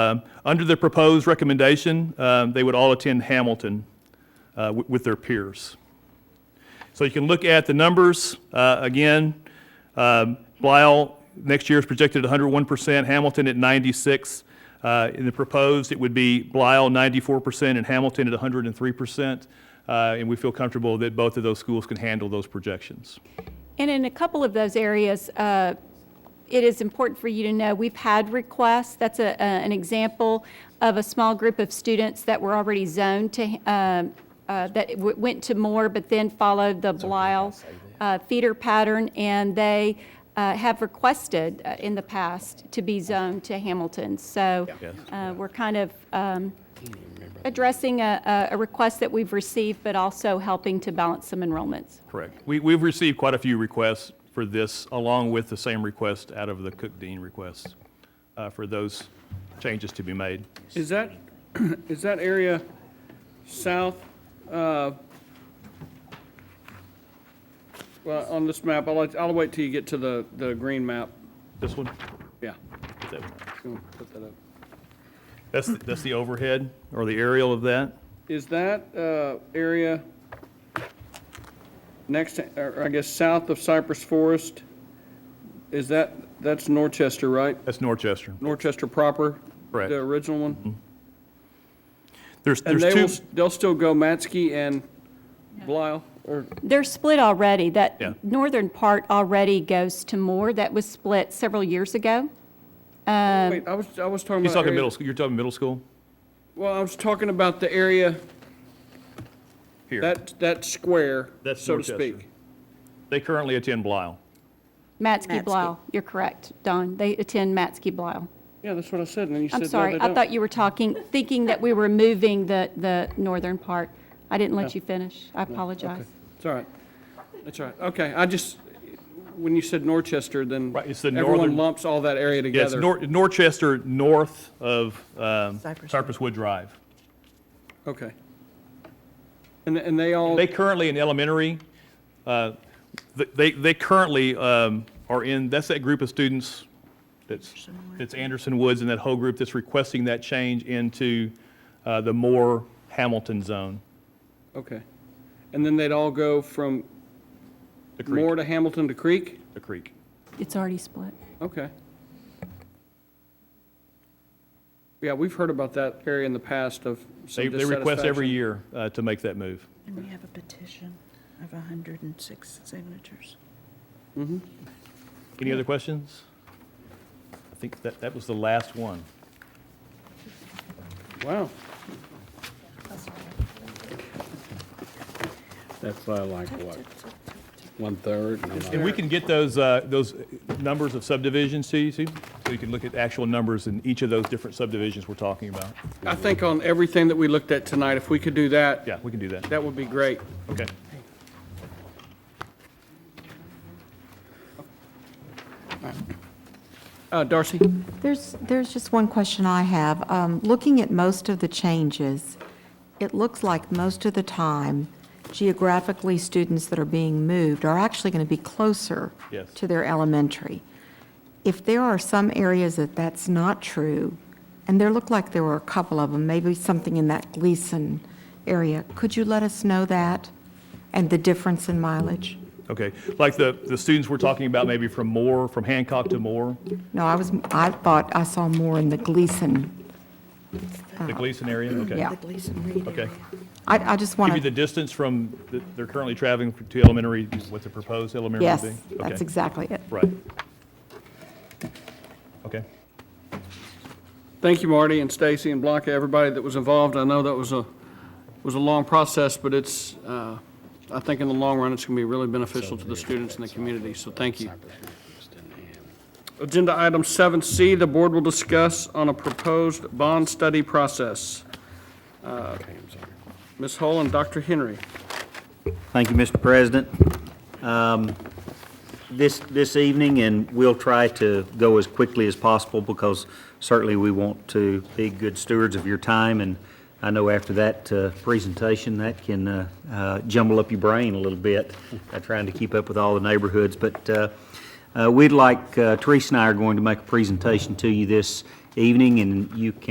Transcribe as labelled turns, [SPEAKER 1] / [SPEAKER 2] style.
[SPEAKER 1] Um, Under the proposed recommendation, um, they would all attend Hamilton uh, wi- with their peers. So you can look at the numbers. uh, Again, um, Blyall, next year is projected at 101%, Hamilton at 96. Uh, In the proposed, it would be Blyall 94% and Hamilton at 103%. Uh, And we feel comfortable that both of those schools can handle those projections.
[SPEAKER 2] And in a couple of those areas, uh, it is important for you to know, we've had requests. That's a, a- an example of a small group of students that were already zoned to, um, uh, that w- went to Moore, but then followed the Blile uh, feeder pattern, and they uh, have requested uh, in the past to be zoned to Hamilton. So uh, we're kind of um, addressing a, a- a request that we've received, but also helping to balance some enrollments.
[SPEAKER 1] Correct. We, we've received quite a few requests for this, along with the same request out of the Cook Dean requests uh, for those changes to be made.
[SPEAKER 3] Is that, is that area south, uh, well, on this map, I'll, let- I'll wait till you get to the, the green map.
[SPEAKER 1] This one?
[SPEAKER 3] Yeah.
[SPEAKER 1] Put that one up.
[SPEAKER 3] go and put that up.
[SPEAKER 1] That's, that's the overhead or the aerial of that?
[SPEAKER 3] Is that uh, area next, to- or I guess south of Cypress Forest? Is that, that's Norchester, right?
[SPEAKER 1] That's Norchester.
[SPEAKER 3] Norchester proper?
[SPEAKER 1] Correct.
[SPEAKER 3] The original one?
[SPEAKER 1] There's,
[SPEAKER 3] And
[SPEAKER 1] there's
[SPEAKER 3] they will,
[SPEAKER 1] two,
[SPEAKER 3] s- they'll still go Matsky and Blile, or?
[SPEAKER 2] They're split already.
[SPEAKER 1] Yeah.
[SPEAKER 2] That northern part already goes to Moore. That was split several years ago. Um,
[SPEAKER 3] Wait, I was, I was talking about.
[SPEAKER 1] he's talking
[SPEAKER 3] area-
[SPEAKER 1] middle, school. you're talking middle school?
[SPEAKER 3] Well, I was talking about the area,
[SPEAKER 1] Here.
[SPEAKER 3] that, that square,
[SPEAKER 1] That's
[SPEAKER 3] so to
[SPEAKER 1] Dorchester.
[SPEAKER 3] speak.
[SPEAKER 1] They currently attend Blisle.
[SPEAKER 2] Matsky
[SPEAKER 4] Matsky.
[SPEAKER 2] Blau, you're correct, Don. They attend Matsky Blau.
[SPEAKER 3] Yeah, that's what I said, and then you said,
[SPEAKER 2] I'm
[SPEAKER 3] no,
[SPEAKER 2] sorry,
[SPEAKER 3] they
[SPEAKER 2] I
[SPEAKER 3] don't.
[SPEAKER 2] thought you were talking, thinking that we were moving the, the northern part. I didn't let you finish. I apologize.
[SPEAKER 3] It's all right. It's all right. Okay, I just, when you said Norchester, then
[SPEAKER 1] Right, it's the northern-
[SPEAKER 3] everyone lumps all that area
[SPEAKER 1] Yes,
[SPEAKER 3] together.
[SPEAKER 1] Nor- Norchester, north of um,
[SPEAKER 4] Cypress.
[SPEAKER 1] Cypresswood Drive.
[SPEAKER 3] Okay. And, and they all,
[SPEAKER 1] They currently in elementary, uh, th- they, they currently um, are in, that's that group of students that's, that's Anderson Woods and that whole group that's requesting that change into uh, the Moore Hamilton zone.
[SPEAKER 3] okay. And then they'd all go from
[SPEAKER 1] The creek.
[SPEAKER 3] Moore to Hamilton to Creek?
[SPEAKER 1] The creek.
[SPEAKER 2] It's already split.
[SPEAKER 3] Okay. Yeah, we've heard about that area in the past of
[SPEAKER 1] They,
[SPEAKER 3] some
[SPEAKER 1] they request every
[SPEAKER 3] dissatisfaction.
[SPEAKER 1] year uh, to make that move.
[SPEAKER 4] And we have a petition of 106 signatures.
[SPEAKER 1] Any other questions? I think that, that was the last one.
[SPEAKER 3] Wow.
[SPEAKER 5] That's why I like, what, one-third? and I'm like-
[SPEAKER 1] And we can get those, uh, those numbers of subdivisions to you, too, so you can look at actual numbers in each of those different subdivisions we're talking about.
[SPEAKER 3] I think on everything that we looked at tonight, if we could do that,
[SPEAKER 1] Yeah, we can do that.
[SPEAKER 3] that would be great.
[SPEAKER 1] Okay.
[SPEAKER 3] Uh, Darcy?
[SPEAKER 6] There's, there's just one question I have. Um, Looking at most of the changes, it looks like most of the time, geographically, students that are being moved are actually going to be closer
[SPEAKER 1] Yes.
[SPEAKER 6] to their elementary. If there are some areas that that's not true, and there looked like there were a couple of them, maybe something in that Gleason area, could you let us know that and the difference in mileage?
[SPEAKER 1] Okay, like the, the students we're talking about, maybe from Moore, from Hancock to Moore,
[SPEAKER 6] No, I was, I thought I saw more in the Gleason.
[SPEAKER 1] the Gleason area, okay.
[SPEAKER 6] Uh-huh. Yeah.
[SPEAKER 4] The Gleason Reed
[SPEAKER 1] Okay.
[SPEAKER 4] area.
[SPEAKER 6] I, I just want
[SPEAKER 1] Give
[SPEAKER 6] to.
[SPEAKER 1] you the distance from, the- they're currently traveling to elementary, what the proposed elementary would
[SPEAKER 6] Yes,
[SPEAKER 1] be? Okay.
[SPEAKER 6] that's exactly it.
[SPEAKER 1] Right. Okay,
[SPEAKER 3] Thank you, Marty and Stacy and Blanca, everybody that was involved. I know that was a, was a long process, but it's, uh, I think in the long run, it's going to be really beneficial to the students and the community, so thank you. Agenda item 7C, the board will discuss on a proposed bond study process. Uh, Ms. Hull and Dr. Henry.
[SPEAKER 7] Thank you, Mr. President. Um, This, this evening, and we'll try to go as quickly as possible because certainly we want to be good stewards of your time. And I know after that uh, presentation, that can uh, uh, jumble up your brain a little bit, uh, trying to keep up with all the neighborhoods. But uh, uh, we'd like, uh, Teresa and I are going to make a presentation to you this evening, and you can